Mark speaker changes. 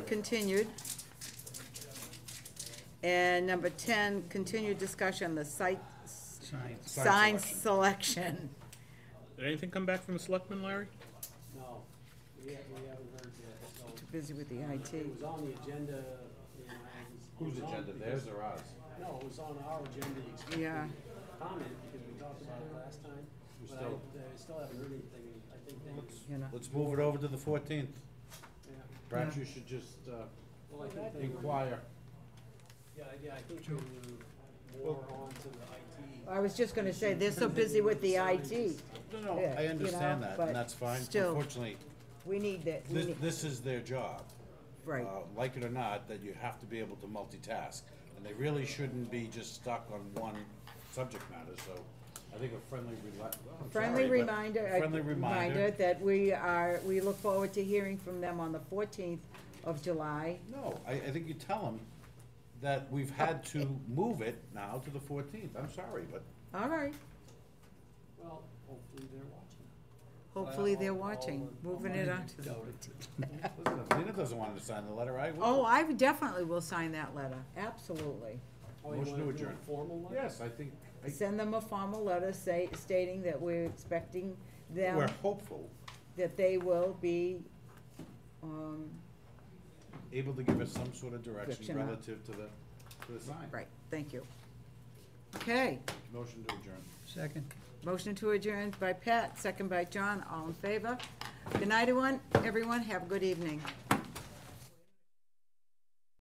Speaker 1: continued. And number ten, continued discussion, on the site, s-
Speaker 2: Sign- sign
Speaker 1: sign
Speaker 2: selection.
Speaker 1: selection.
Speaker 3: Did anything come back from the selectmen, Larry?
Speaker 4: No, we haven't, we haven't heard that, so
Speaker 1: Too busy with the
Speaker 4: it
Speaker 1: IT.
Speaker 4: was on the agenda, you know, and it was
Speaker 5: Whose
Speaker 4: on
Speaker 5: agenda,
Speaker 4: because-
Speaker 5: theirs or ours?
Speaker 4: No, it was on our agenda, you expected
Speaker 1: Yeah.
Speaker 4: comment, because we talked about it last time,
Speaker 5: We
Speaker 4: but I,
Speaker 5: still-
Speaker 4: I still haven't heard anything, I think they,
Speaker 1: You know,
Speaker 5: Let's move it over to the fourteenth.
Speaker 4: yeah,
Speaker 5: Perhaps you should just uh,
Speaker 4: well, I think they were,
Speaker 5: inquire.
Speaker 4: yeah, yeah, I think they were more on to the IT.
Speaker 1: I was just gonna say, they're so busy with the IT,
Speaker 5: No, no,
Speaker 1: Yeah,
Speaker 5: I
Speaker 1: you
Speaker 5: understand
Speaker 1: know,
Speaker 5: that,
Speaker 1: but
Speaker 5: and that's fine.
Speaker 1: still.
Speaker 5: Unfortunately,
Speaker 1: we need that, we
Speaker 5: this,
Speaker 1: need,
Speaker 5: this is their job.
Speaker 1: right,
Speaker 5: Uh, Like it or not, that you have to be able to multitask, and they really shouldn't be just stuck on one subject matter, so I think a friendly rela- I'm
Speaker 1: friendly
Speaker 5: sorry, but
Speaker 1: reminder,
Speaker 5: a
Speaker 1: a
Speaker 5: Friendly
Speaker 1: reminder
Speaker 5: reminder.
Speaker 1: that we are, we look forward to hearing from them on the fourteenth of July.
Speaker 5: No, I, I think you tell them that we've had to move it now to the fourteenth. I'm sorry, but
Speaker 1: All right,
Speaker 4: Well, hopefully they're watching.
Speaker 1: hopefully
Speaker 4: Well,
Speaker 1: they're
Speaker 4: all-
Speaker 1: watching,
Speaker 4: all
Speaker 1: moving it
Speaker 4: money
Speaker 1: on to the.
Speaker 4: goes to-
Speaker 5: listen, if Lena doesn't want to sign the letter, I will.
Speaker 1: Oh, I definitely will sign that letter, absolutely.
Speaker 4: Oh, you
Speaker 5: Motion
Speaker 4: wanna
Speaker 5: to
Speaker 4: do a
Speaker 5: adjourn.
Speaker 4: Formal one?
Speaker 5: Yes, I think, I-
Speaker 1: Send them a formal letter say, stating that we're expecting
Speaker 5: we're
Speaker 1: them,
Speaker 5: hopeful,
Speaker 1: that they will be, um,
Speaker 5: able to give us some sort of direction
Speaker 1: Direction on-
Speaker 5: relative to the, to the sign.
Speaker 1: right, thank you. Okay,
Speaker 5: Motion to adjourn.
Speaker 2: Second.
Speaker 1: motion to adjourn by Pat, second by John, all in favor? Good night, everyone, everyone, have a good evening.